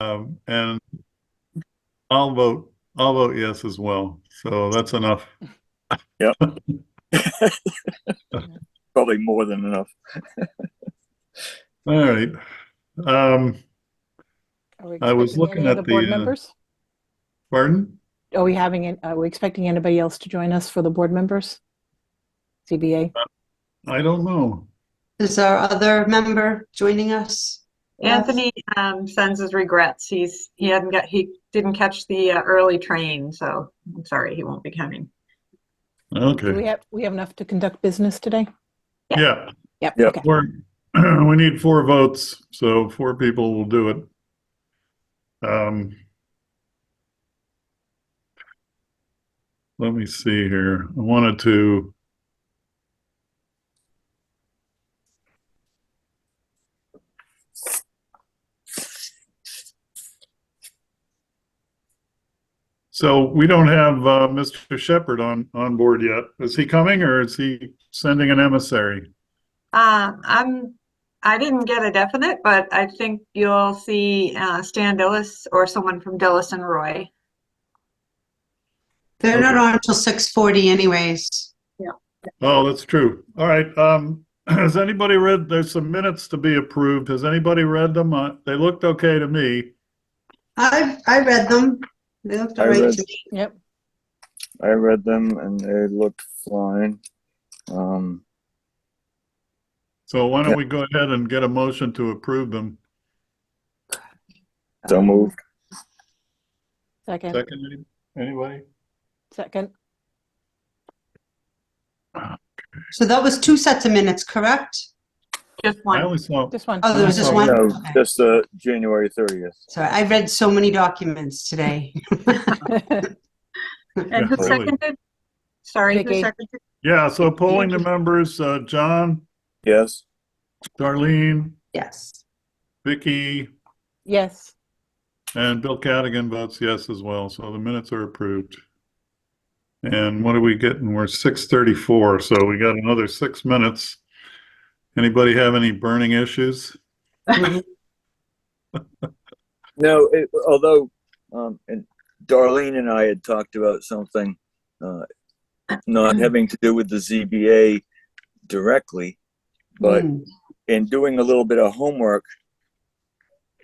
Um, and I'll vote, I'll vote yes as well. So that's enough. Probably more than enough. All right. Um, Are we I was expecting looking any at other board the, uh, members? pardon? Are we having, an- are we expecting anybody else to join us for the board members? CBA? I don't know. Is our other member joining us? Anthony um, sends his regrets. He's, he hadn't got, he didn't catch the uh, early train, so I'm sorry, he won't be coming. Do we Okay. have, we have enough to conduct business today? Yeah, Yep, Yep. okay. we're, we need four votes, so four people will do it. Um, let me see here. I wanted to. So we don't have uh, Mr. Shepherd on, on board yet. Is he coming or is he sending an emissary? Uh, I'm, I didn't get a definite, but I think you'll see uh, Stan Dillis or someone from Dillis and Roy. They're not on until 6:40 anyways. Oh, that's true. All right. Um, has anybody read, there's some minutes to be approved. Has anybody read them? Uh, They looked okay to me. I, I read them. They looked I all right read. to me. Yep. I read them and they looked fine. Um, So why Yeah. don't we go ahead and get a motion to approve them? so moved. Second, Second, any- anybody? second. So that was two sets of minutes, correct? Just I one. only saw, Just one. Oh, there was just Oh, one? No, Okay. just uh, January 30th. Sorry, I read so many documents today. And who Yeah, really. seconded? Sorry, who Vicky. seconded? yeah, so polling the members, uh, John, Yes. Darlene, Yes. Vicky, Yes, and Bill Cadigan votes yes as well. So the minutes are approved. And what are we getting? We're six thirty-four, so we got another six minutes. Anybody have any burning issues? Mhm. No, it, although um, and Darlene and I had talked about something uh, not having to do with the ZBA directly, but Mm. in doing a little bit of homework,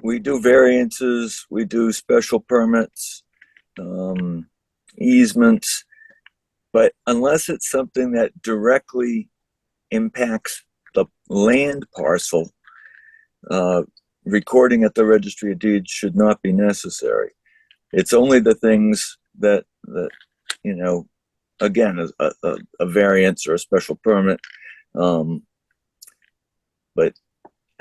we do variances, we do special permits, um, easements. But unless it's something that directly impacts the land parcel, uh, recording at the registry of deeds should not be necessary. It's only the things that, that, you know, again, a- a, a, a variance or a special permit, um,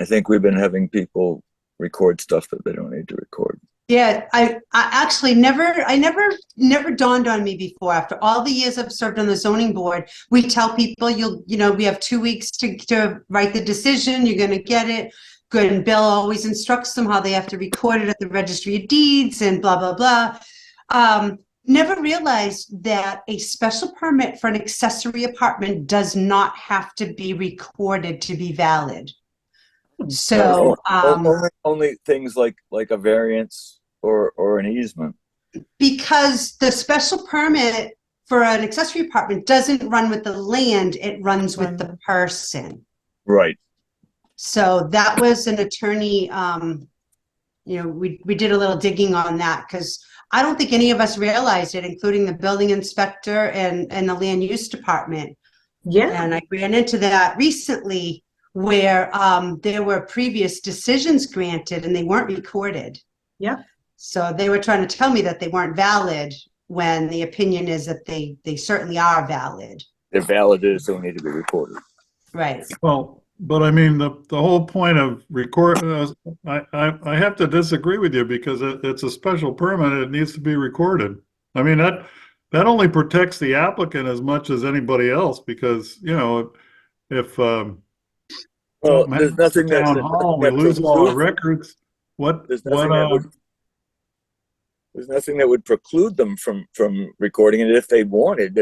I think we've been having people record stuff that they don't need to record. Yeah, I, I actually never, I never, never dawned on me before. After all the years I've served on the zoning board, we tell people you'll, you know, we have two weeks to, to write the decision, you're gonna get it. Good, and Bill always instructs them how they have to record it at the registry of deeds and blah, blah, blah. Um, never realized that a special permit for an accessory apartment does not have to be recorded to be valid. So, um. Oh, only, only things like like a variance or or an easement. Because the special permit for an accessory apartment doesn't run with the land, it runs with the person. Right. So that was an attorney, um, you know, we, we did a little digging on that because I don't think any of us realized it, including the building inspector and, and the land use department. Yeah, And I ran into that recently where um, there were previous decisions granted and they weren't recorded. Yeah. So they were trying to tell me that they weren't valid when the opinion is that they, they certainly are valid. They're valid. They just don't need to be recorded. Right. Well, but I mean, the, the whole point of record, uh, I, I, I have to disagree with you because it, it's a special permit. It needs to be recorded. I mean, that, that only protects the applicant as much as anybody else because, you know, if, um, Well, something there's happens nothing at that's, Town hall, we that's lose all the exclusive. records. What, There's nothing what, that uh, would- There's nothing that would preclude them from from recording it if they wanted.